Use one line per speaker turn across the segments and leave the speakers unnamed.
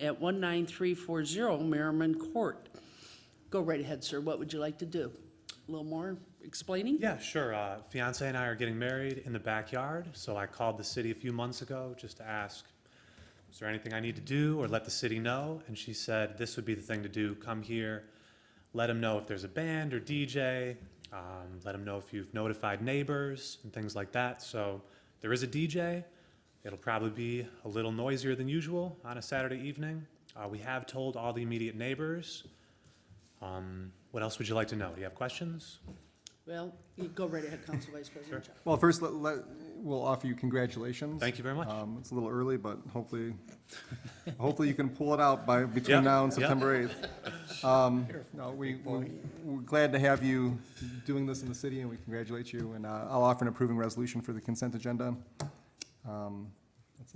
at 19340 Merriman Court. Go right ahead, sir. What would you like to do? A little more explaining?
Yeah, sure. Uh, fiance and I are getting married in the backyard, so I called the city a few months ago just to ask, is there anything I need to do or let the city know? And she said this would be the thing to do. Come here, let them know if there's a band or DJ, um, let them know if you've notified neighbors and things like that. So there is a DJ. It'll probably be a little noisier than usual on a Saturday evening. Uh, we have told all the immediate neighbors. Um, what else would you like to know? Do you have questions?
Well, you go right ahead, Council Vice President. Chao.
Well, first, let, let, we'll offer you congratulations.
Thank you very much.
Um, it's a little early, but hopefully, hopefully you can pull it out by, between now and
yeah.
September eighth. Um, no, we, we- we're glad to have you doing this in the city, and we congratulate you, and, uh, I'll offer an approving resolution for the consent agenda. Um,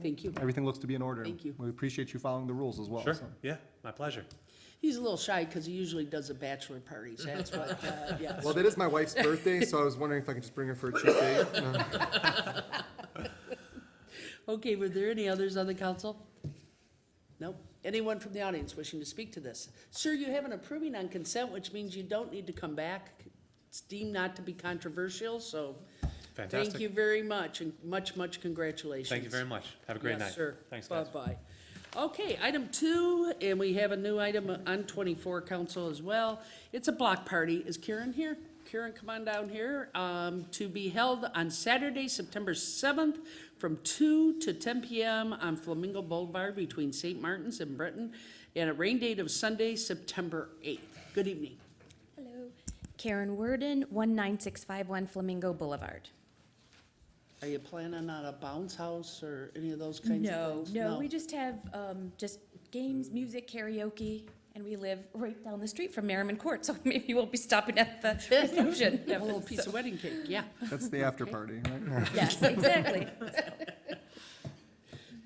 Thank you.
Everything looks to be in order.
Thank you.
We appreciate you following the rules as well.
Sure,
so.
yeah, my pleasure.
He's a little shy because he usually does a bachelor party, so that's what, uh, yes.
Well, that is my wife's birthday, so I was wondering if I could just bring her for a cheap date. Uh,
Okay, were there any others on the council? Nope. Anyone from the audience wishing to speak to this? Sir, you have an approving on consent, which means you don't need to come back. It's deemed not to be controversial, so thank
Fantastic.
you very much, and much, much congratulations.
Thank you very much. Have a great night.
Yes, sir.
Thanks, guys.
Bye-bye. Okay, item two, and we have a new item on twenty-four council as well. It's a block party. Is Karen here? Karen, come on down here, um, to be held on Saturday, September seventh, from two to ten PM on Flamingo Boulevard between St. Martin's and Breton, and a rain date of Sunday, September eighth. Good evening.
Hello, Karen Worden, 19651 Flamingo Boulevard.
Are you planning on a bounce house or any of those kinds
No,
of things?
no, we just have, um, just games, music, karaoke, and we live right down the street from Merriman Court, so maybe we'll be stopping at the reception.
A little piece of wedding cake, yeah.
That's the after party, right?
Yes, exactly.
All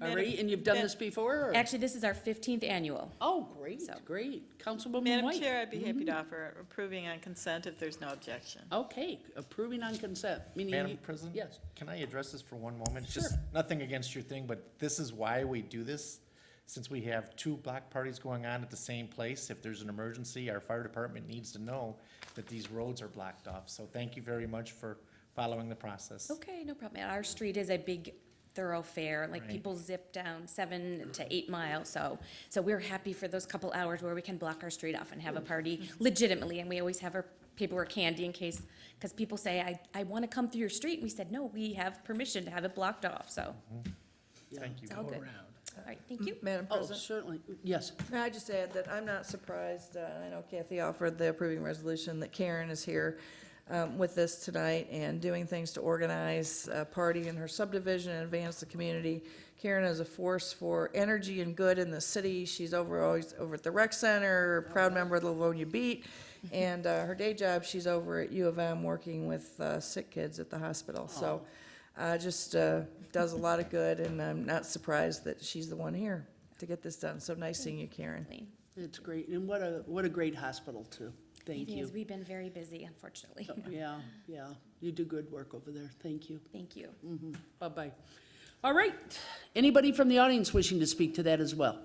Madam-
right, and you've done this before, or?
Actually, this is our 15th annual.
Oh, great,
So-
great. Councilwoman
Madam
White.
Chair, I'd be happy to offer approving on consent if there's no objection.
Okay, approving on consent, meaning.
Madam
you-
President?
Yes.
Can I address this for one moment?
Sure.
Just Nothing against your thing, but this is why we do this. Since we have two block parties going on at the same place, if there's an emergency, our fire department needs to know that these roads are blocked off. So thank you very much for following the process.
Okay, no problem. And Our street is a big thoroughfare, like
Right.
people zip down seven to eight miles, so, so we're happy for those couple hours where we can block our street off and have a party legitimately, and we always have our paperwork handy in case, because people say, I, I want to come through your street, and we said, no, we have permission to have it blocked off, so,
Thank you.
it's all good. All right, thank you.
Madam
Oh,
President,
certainly, yes.
may I just add that I'm not surprised, uh, I know Kathy offered the approving resolution, that Karen is here um, with us tonight and doing things to organize a party in her subdivision and advance the community. Karen is a force for energy and good in the city. She's over, always over at the rec center, proud member of the Livonia Beat. And uh, her day job, she's over at U of M working with uh, sick kids at the hospital. So uh, just uh, does a lot of good, and I'm not surprised that she's the one here to get this done. So nice seeing you, Karen.
It's great, and what a, what a great hospital, too. Thank
It is,
you.
we've been very busy, unfortunately.
Yeah, yeah, you do good work over there, thank you.
Thank you.
Bye-bye. All right, anybody from the audience wishing to speak to that as well?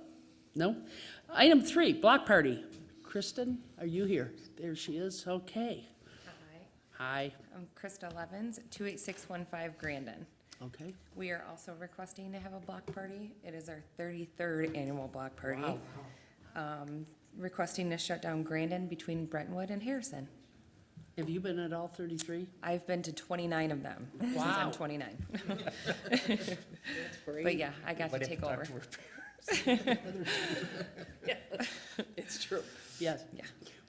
No? Item three, block party. Kristen, are you here? There she is, okay. Hi,
I'm Krista Levens, 28615 Grandin.
okay.
We are also requesting to have a block party. It is our 33rd annual block party. Um, Requesting to shut down Grandin between Brentwood and Harrison.
Have you been at all thirty-three?
I've been to 29 of them, since
Wow.
I'm 29. But yeah, I got to
Might have
take
talk
over.
to her.
It's true. Yes.
Yeah.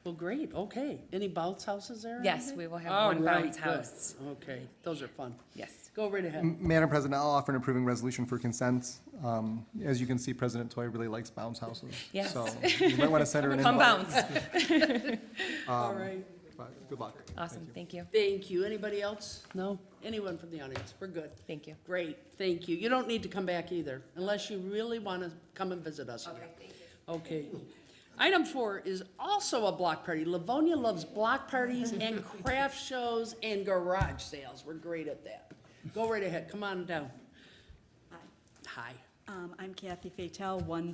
Well, great, okay. Any bounce houses there?
Yes, we will have
All
one
right,
bounce
good.
house.
Okay, those are fun.
Yes.
Go right ahead.
Madam President, I'll offer an approving resolution for consent. Um, As you can see, President Toy really likes bounce houses.
Yes.
So you might want to send her an invite.
Come bounce.
All right.
but Good luck.
Awesome, thank you.
Thank you. Anybody else? No? Anyone from the audience? We're good.
Thank you.
Great, thank you. You don't need to come back either, unless you really want to come and visit us. Okay, Okay. Item four is also a block party. Livonia loves block parties and craft shows and garage sales. We're great at that. Go right ahead, come on down. Hi.
Um, I'm Kathy Fatel, one